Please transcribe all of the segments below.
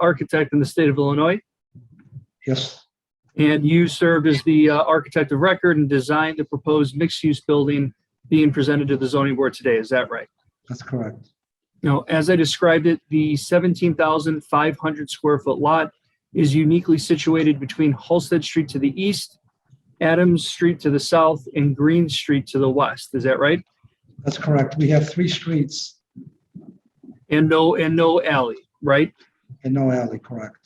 architect in the state of Illinois, Yes, and you served as the uh, architect of record and designed the proposed mixed-use building being presented to the zoning board today. Is that right? that's correct. Now, as I described it, the 17,500 square foot lot is uniquely situated between Halsted Street to the east, Adams Street to the south, and Green Street to the west. Is that right? That's correct. We have three streets And no, and no alley, right? and no alley, correct?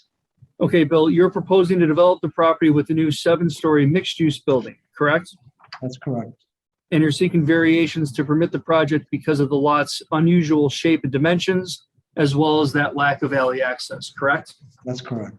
Okay, Bill, you're proposing to develop the property with a new seven-story mixed-use building, correct? That's correct. And you're seeking variations to permit the project because of the lot's unusual shape and dimensions, as well as that lack of alley access, correct? That's correct.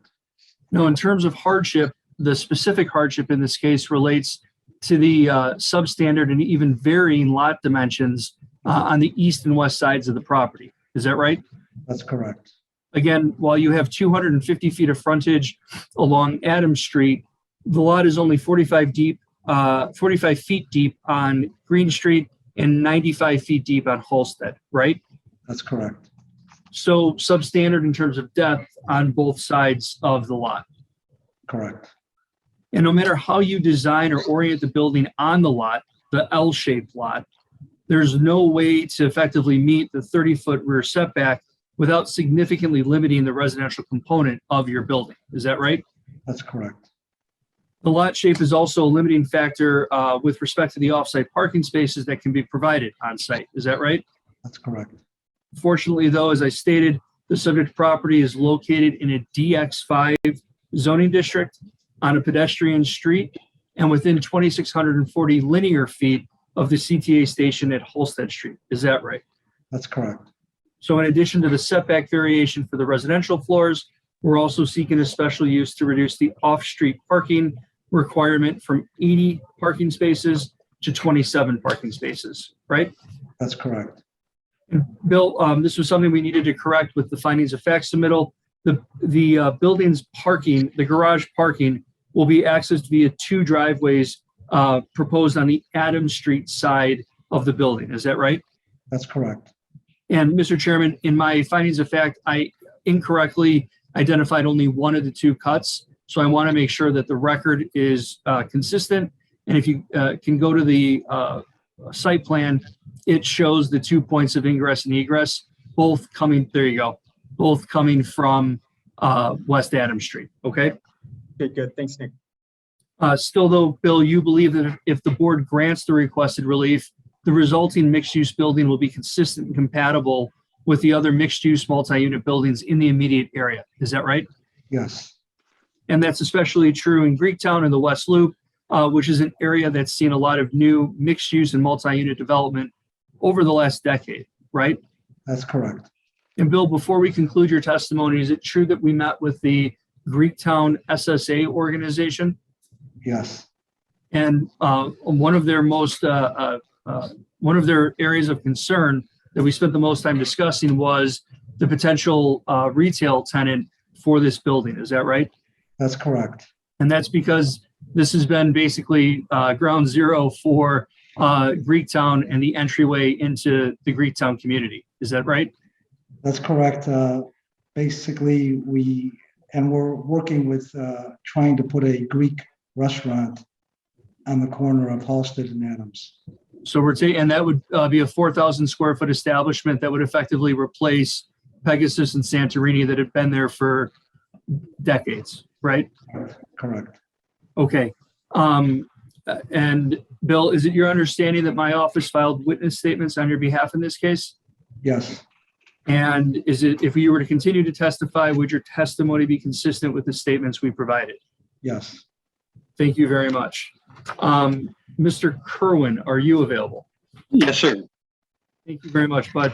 Now, in terms of hardship, the specific hardship in this case relates to the uh, substandard and even varying lot dimensions uh, on the east and west sides of the property. Is that right? That's correct. Again, while you have 250 feet of frontage along Adams Street, the lot is only 45 deep, uh, 45 feet deep on Green Street and 95 feet deep on Halsted, right? That's correct. So substandard in terms of depth on both sides of the lot. Correct. And no matter how you design or orient the building on the lot, the L-shaped lot, there's no way to effectively meet the 30-foot rear setback without significantly limiting the residential component of your building. Is that right? That's correct. The lot shape is also a limiting factor uh, with respect to the off-site parking spaces that can be provided on-site. Is that right? That's correct. Fortunately, though, as I stated, the subject property is located in a DX5 zoning district on a pedestrian street and within 2,640 linear feet of the CTA station at Holstead Street. Is that right? That's correct. So in addition to the setback variation for the residential floors, we're also seeking a special use to reduce the off-street parking requirement from 80 parking spaces to 27 parking spaces, right? That's correct. Bill, um, this was something we needed to correct with the findings of fact submittal. The, the uh, building's parking, the garage parking will be accessed via two driveways uh, proposed on the Adams Street side of the building. Is that right? That's correct. And Mr. Chairman, in my findings of fact, I incorrectly identified only one of the two cuts. So I want to make sure that the record is uh, consistent. And if you uh, can go to the uh, site plan, it shows the two points of ingress and egress, both coming, there you go, both coming from uh, West Adams Street, okay? Good, good. Thanks, Nick. Uh, Still though, Bill, you believe that if the board grants the requested relief, the resulting mixed-use building will be consistent and compatible with the other mixed-use multi-unit buildings in the immediate area. Is that right? Yes, And that's especially true in Greektown and the West Loop, uh, which is an area that's seen a lot of new mixed-use and multi-unit development over the last decade, right? that's correct. And Bill, before we conclude your testimony, is it true that we met with the Greektown SSA organization? Yes, And uh, one of their most, uh, uh, uh, one of their areas of concern that we spent the most time discussing was the potential uh, retail tenant for this building. Is that right? that's correct. And that's because this has been basically uh, ground zero for uh, Greektown and the entryway into the Greektown community. Is that right? That's correct. Uh, Basically, we, and we're working with uh, trying to put a Greek restaurant on the corner of Halsted and Adams. So we're taking, and that would uh, be a 4,000 square foot establishment that would effectively replace Pegasus and Santorini that had been there for decades, right? Correct. Okay. Um, uh, and Bill, is it your understanding that my office filed witness statements on your behalf in this case? Yes, And is it, if you were to continue to testify, would your testimony be consistent with the statements we provided? yes, Thank you very much. Um, Mr. Kerwin, are you available? Yes, sir. Thank you very much, bud.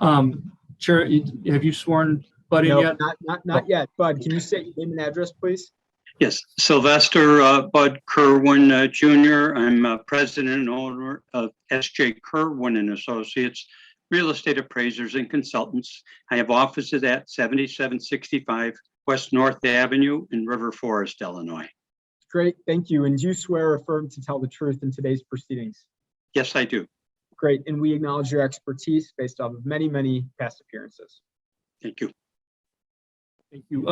Um, Chair, you- have you sworn bud in No, yet? not, not, not yet. Bud, can you say your name and address, please? Yes, Sylvester uh, Bud Kerwin uh, Jr. I'm uh, president and owner of SJ Kerwin and Associates, real estate appraisers and consultants. I have offices at 7765 West North Avenue in River Forest, Illinois. Great, thank you. And do you swear or affirm to tell the truth in today's proceedings? Yes, I do. Great, and we acknowledge your expertise based off of many, many past appearances. Thank you. Thank you.